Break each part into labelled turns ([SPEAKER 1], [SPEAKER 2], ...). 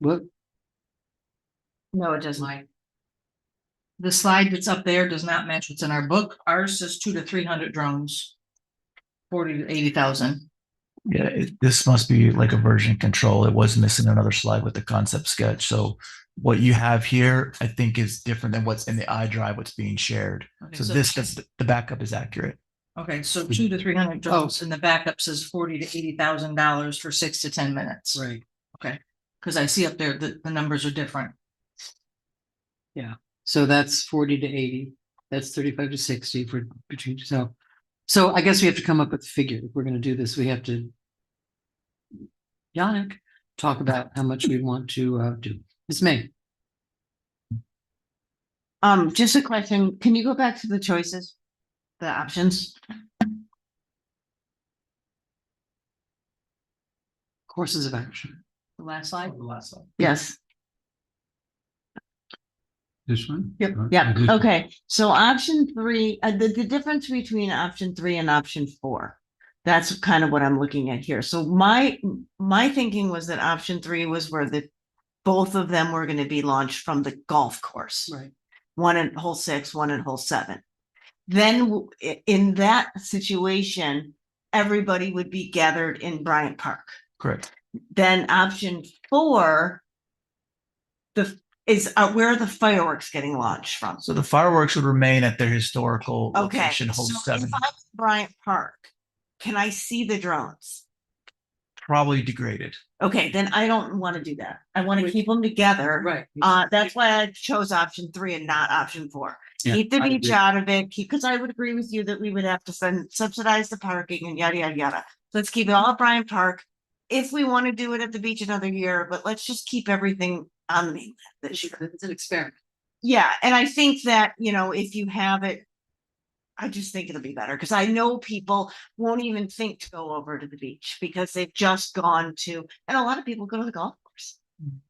[SPEAKER 1] What?
[SPEAKER 2] No, it doesn't. The slide that's up there does not match what's in our book. Ours says two to three hundred drones. Forty to eighty thousand.
[SPEAKER 3] Yeah, it, this must be like a version control. It was missing another slide with the concept sketch. So what you have here, I think is different than what's in the iDrive, what's being shared.
[SPEAKER 2] Okay,
[SPEAKER 3] So this, the, the backup is accurate.
[SPEAKER 2] Okay, so two to three hundred
[SPEAKER 4] Oh.
[SPEAKER 2] drones and the backup says forty to eighty thousand dollars for six to ten minutes.
[SPEAKER 1] Right.
[SPEAKER 2] Cause I see up there that the numbers are different.
[SPEAKER 1] So that's forty to eighty, that's thirty-five to sixty for between, so. So I guess we have to come up with a figure. If we're gonna do this, we have to. Yannick, talk about how much we want to uh do. Ms. May,
[SPEAKER 4] Um, just a question, can you go back to the choices? The options?
[SPEAKER 1] courses of action.
[SPEAKER 2] Oh, The Last slide.
[SPEAKER 4] Yes,
[SPEAKER 5] This one?
[SPEAKER 1] Yep.
[SPEAKER 5] Uh,
[SPEAKER 4] yeah,
[SPEAKER 5] this-
[SPEAKER 4] okay, so option three, uh, the, the difference between option three and option four. That's kind of what I'm looking at here, so my, my thinking was that option three was where the. Both of them were gonna be launched from the golf course.
[SPEAKER 1] Right.
[SPEAKER 4] one in hole six, one in hole seven. Then w- i- in that situation, everybody would be gathered in Bryant Park.
[SPEAKER 3] Correct.
[SPEAKER 4] Then option four, the, is, uh, where are the fireworks getting launched from?
[SPEAKER 3] So the fireworks would remain at their historical
[SPEAKER 4] Okay,
[SPEAKER 3] location,
[SPEAKER 4] so
[SPEAKER 3] hold
[SPEAKER 4] if
[SPEAKER 3] seven,
[SPEAKER 4] I'm in Bryant Park, can I see the drones?
[SPEAKER 3] probably degraded.
[SPEAKER 4] Okay, then I don't want to do that. I want to keep them together.
[SPEAKER 1] Right.
[SPEAKER 4] Uh, that's why I chose option three and not option four.
[SPEAKER 5] Yeah,
[SPEAKER 4] Keep the
[SPEAKER 5] I
[SPEAKER 4] beach
[SPEAKER 5] agree.
[SPEAKER 4] out of it, keep, because I would agree with you that we would have to send subsidize the parking and yada, yada, yada. Let's keep it all at Bryant Park. If we want to do it at the beach another year, but let's just keep everything on the mainland this year.
[SPEAKER 1] It's an experiment.
[SPEAKER 4] Yeah, and I think that, you know, if you have it. I just think it'll be better because I know people won't even think to go over to the beach because they've just gone to, and a lot of people go to the golf course.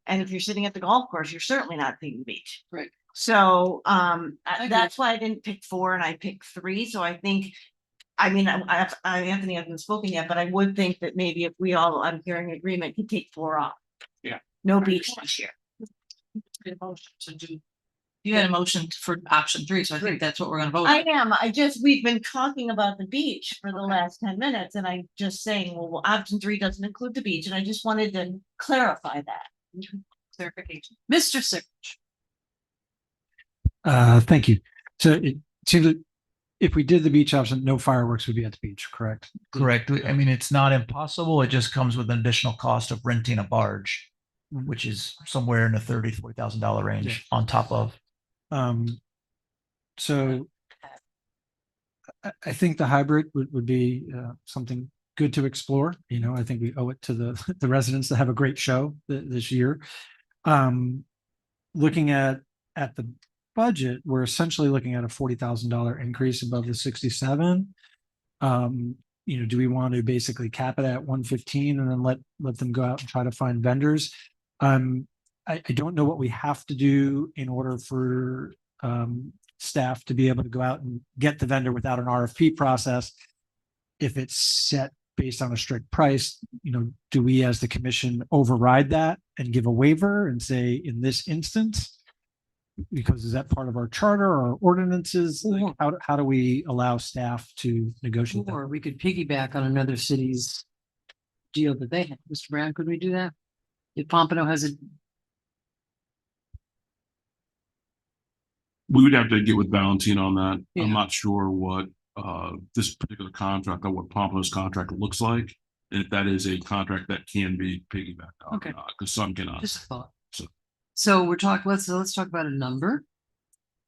[SPEAKER 4] And if you're sitting at the golf course, you're certainly not seeing the beach.
[SPEAKER 1] Right.
[SPEAKER 4] So um, I-
[SPEAKER 1] agree.
[SPEAKER 4] that's why I didn't pick four and I picked three. So I think. I mean, I, I, I- Anthony hasn't spoken yet, but I would think that maybe if we all, I'm hearing agreement, could take four off.
[SPEAKER 5] Yeah.
[SPEAKER 4] No beach this year.
[SPEAKER 2] To do. You had a motion for option three, so I think that's what we're gonna vote.
[SPEAKER 4] I
[SPEAKER 2] on.
[SPEAKER 4] am, I just, we've been talking about the beach for the last ten minutes and I'm just saying, well, well, option three doesn't include the beach and I just wanted to clarify that.
[SPEAKER 2] Clarification. Mr. Sick.
[SPEAKER 6] Uh, thank you. So it seems that if we did the beach option, no fireworks would be at the beach, correct?
[SPEAKER 3] Correct. I mean, it's not impossible. It just comes with an additional cost of renting a barge,
[SPEAKER 4] Mm-hmm.
[SPEAKER 6] Mhm.
[SPEAKER 3] which is somewhere in the thirty, forty thousand dollar range on top of.
[SPEAKER 6] Um, so I, I think the hybrid would, would be, uh, something good to explore. You know, I think we owe it to the, the residents to have a great show th- this year. Um, looking at, at the budget, we're essentially looking at a forty thousand dollar increase above the sixty-seven. Um, you know, do we want to basically cap it at one fifteen and then let, let them go out and try to find vendors? Um, I, I don't know what we have to do in order for um staff to be able to go out and get the vendor without an RFP process. If it's set based on a strict price, you know, do we as the commission override that and give a waiver and say in this instance? Because is that part of our charter or ordinances? Like, how, do- how do we allow staff to negotiate? that?
[SPEAKER 1] Or we could piggyback on another city's deal that they have. Mr. Brown, could we do that? If Pompano has a,
[SPEAKER 5] We would have to get with Valentine on that.
[SPEAKER 1] Yeah.
[SPEAKER 5] I'm not sure what, uh, this particular contract or what Pompano's contract looks like. And if that is a contract that can be piggybacked on,
[SPEAKER 1] Okay.
[SPEAKER 5] because some cannot.
[SPEAKER 1] just a thought.
[SPEAKER 5] Uh, So-
[SPEAKER 1] So we're talking, let's, let's talk about a number.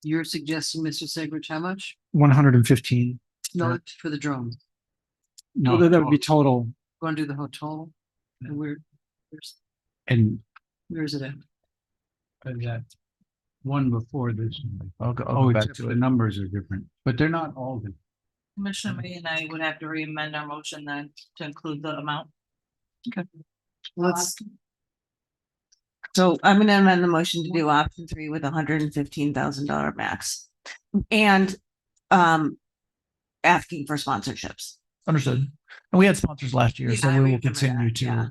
[SPEAKER 1] You're suggesting, Mr. Segrich, how much?
[SPEAKER 6] One hundred and fifteen,
[SPEAKER 1] No,
[SPEAKER 6] Yeah.
[SPEAKER 1] it's for the drone.
[SPEAKER 6] that
[SPEAKER 5] No,
[SPEAKER 6] that would be total.
[SPEAKER 1] Going to do the hotel. And where, where's,
[SPEAKER 7] And
[SPEAKER 1] where is it at?
[SPEAKER 7] and that one before this, one.
[SPEAKER 3] I'll go, I'll go
[SPEAKER 7] oh,
[SPEAKER 3] back
[SPEAKER 7] except
[SPEAKER 3] to
[SPEAKER 7] the
[SPEAKER 3] it.
[SPEAKER 7] numbers are different, but they're not all different.
[SPEAKER 2] Commissioner
[SPEAKER 4] Mm-hmm.
[SPEAKER 2] May and I would have to re-amend our motion then to include the amount.
[SPEAKER 1] Let's,
[SPEAKER 4] So I'm gonna amend the motion to do option three with a hundred and fifteen thousand dollar max. And um asking for sponsorships.
[SPEAKER 3] Understood. And we had sponsors last year, so
[SPEAKER 4] Yeah,
[SPEAKER 3] we
[SPEAKER 4] we
[SPEAKER 3] will
[SPEAKER 4] remember that,
[SPEAKER 3] continue to.
[SPEAKER 4] yeah.